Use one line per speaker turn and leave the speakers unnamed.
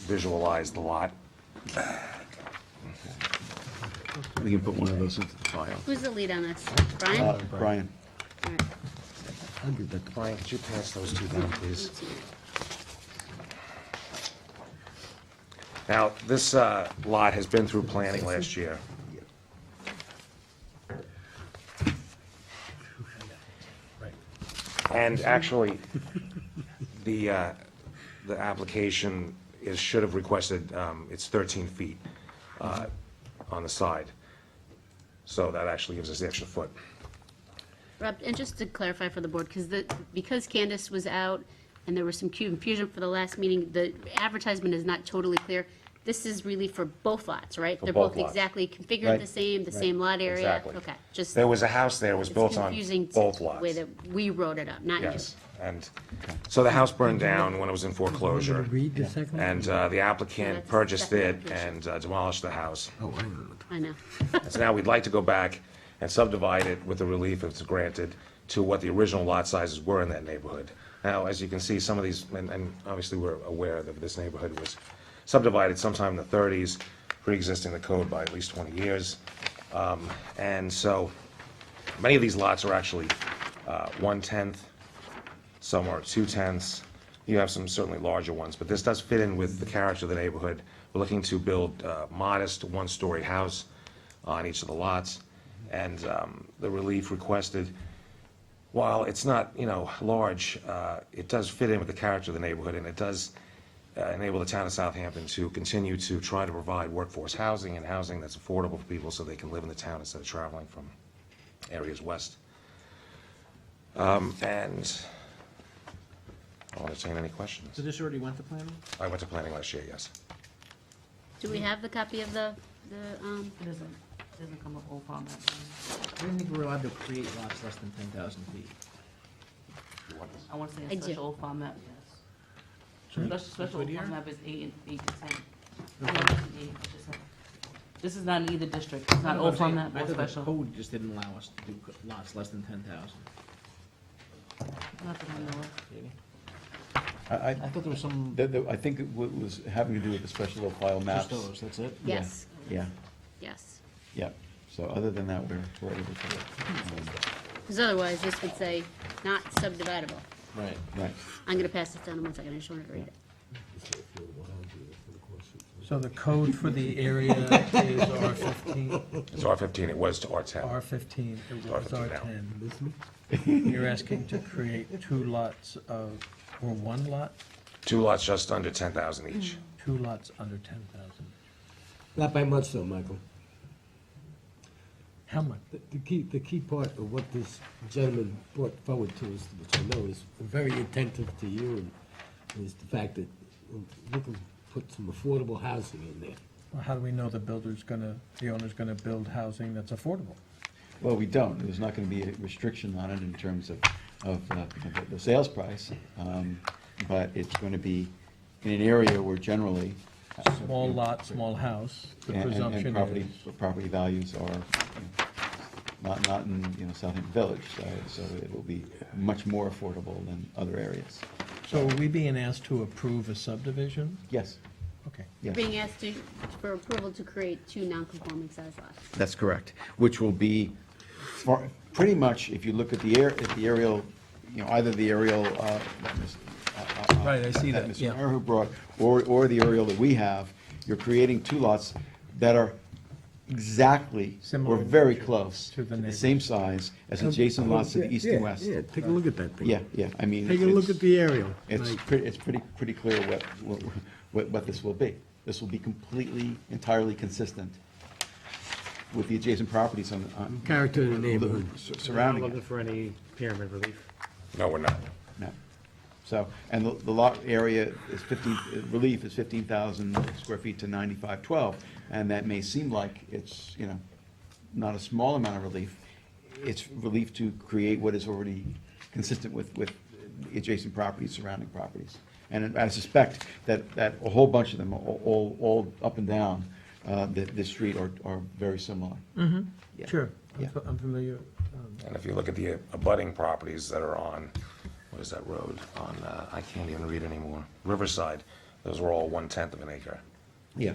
visualize the lot.
We can put one of those into the file.
Who's the lead on this? Brian?
Uh, Brian,
All right.
Brian, could you pass those two down, please?
Let's see.
Now, this uh, lot has been through planning last year. And actually, the, uh, the application is, should have requested, um, it's 13 feet uh, on the side. So that actually gives us the extra foot.
Rob, and just to clarify for the board, because the, because Candace was out and there was some confusion for the last meeting, the advertisement is not totally clear. This is really for both lots, right? They're
both
both
lots.
exactly configured
Right.
the same, the same lot area?
Exactly.
Okay, just,
There
it's
was a house there, it was built on
confusing to
both
the
lots.
way that we wrote it up, not you.
Yes, and, so the house burned down when it was in foreclosure.
Read the second one?
And uh, the
No,
applicant
that's
purchased it
definitely appreciated.
and uh, demolished the house.
I know.
So now we'd like to go back and subdivide it with the relief if it's granted to what the original lot sizes were in that neighborhood. Now, as you can see, some of these, and, and obviously we're aware that this neighborhood was subdivided sometime in the thirties, pre-existing the code by at least twenty years. Um, And so, many of these lots are actually uh, one-tenth, some are two-tenths. You have some certainly larger ones, but this does fit in with the character of the neighborhood. We're looking to build a modest, one-story house on each of the lots, and um, the relief requested, while it's not, you know, large, uh, it does fit in with the character of the neighborhood, and it does uh, enable the town of Southampton to continue to try to provide workforce housing and housing that's affordable for people so they can live in the town instead of traveling from areas west. Um, And I'll entertain any questions.
So this already went to planning?
I went to planning last year, yes.
Do we have the copy of the, the, um,
It doesn't, it doesn't come up all on that. one.
I didn't think we were allowed to create lots less than ten thousand feet.
I want to
I do.
say a special farm map, yes. Special, special
right here?
farm map is eight and, eight to ten. No, it's eight to seven. This is not in either district, it's not all farm map
I thought
or
the
special.
code just didn't allow us to do co- lots less than ten thousand.
Not that I know of.
I, I,
I thought there was some,
that- that- I think it wa- was having to do with the special little file maps.
just those, that's it?
Yeah,
yes,
Yeah,
yes.
yeah. So other than that, we're, we're able to, um,
Because otherwise, this would say not subdividable.
Right.
right.
I'm gonna pass this down in one second, I just wanted to read it.
So the code for the area is R fifteen,
It's R15, it was to R10.
R fifteen, it was R
R15 now.
ten. You're asking to create two lots of, or one lot,
Two lots just under 10,000 each.
two lots under ten thousand.
Not by much though, Michael.
How much?
The, the key, the key part of what this gentleman brought forward to us, which I know is very attentive to you, and is the fact that we can put some affordable housing in there.
Well, How do we know the builder's gonna, the owner's gonna build housing that's affordable?
Well, we don't. There's not gonna be a restriction on it in terms of, of, uh, of the- the sales price. Um, but it's gonna be in an area where generally. uh,
Small lot, small house, the
and- and-
presumption
And property,
is.
property values are you know, not, not in, you know, Southampton Village, so, so it will be much more affordable than other areas.
So are we being asked to approve a subdivision?
Yes,
Okay.
yes.
Being asked to, for approval to create two non-conforming size lots.
That's correct, which will be, for, pretty much, if you look at the air, at the aerial, you know, either the aerial, uh, that Ms. uh, uh, uh,
Right, I see that, yeah.
Mr. Maher brought, or, or the aerial that we have, you're creating two lots that are exactly, or
Similar
very close,
to the
to the same size as adjacent lots to the east and west.
Yeah, take a look at that thing.
Yeah, yeah, I mean.
Take a
it's-
look at the aerial.
It's
Like,
pretty, it's pretty, pretty clear what, what, what, what this will be. This will be completely, entirely consistent with the adjacent properties on, on,
Character in the neighborhood.
sur- surrounding it.
Looking for any pyramid relief.
No, we're not.
No. So, and the the lot area is fifteen, uh, relief is fifteen thousand square feet to ninety-five twelve. And that may seem like it's, you know, not a small amount of relief. It's relief to create what is already consistent with, with adjacent properties, surrounding properties. And I suspect that, that a whole bunch of them, all, all, all up and down, uh, the, the street are, are very similar. Yeah.
Sure, I'm
Yeah.
fa- I'm familiar. um,
And if you look at the abutting properties that are on, what is that road? On, uh, I can't even read anymore, Riverside. Those were all one-tenth of an acre.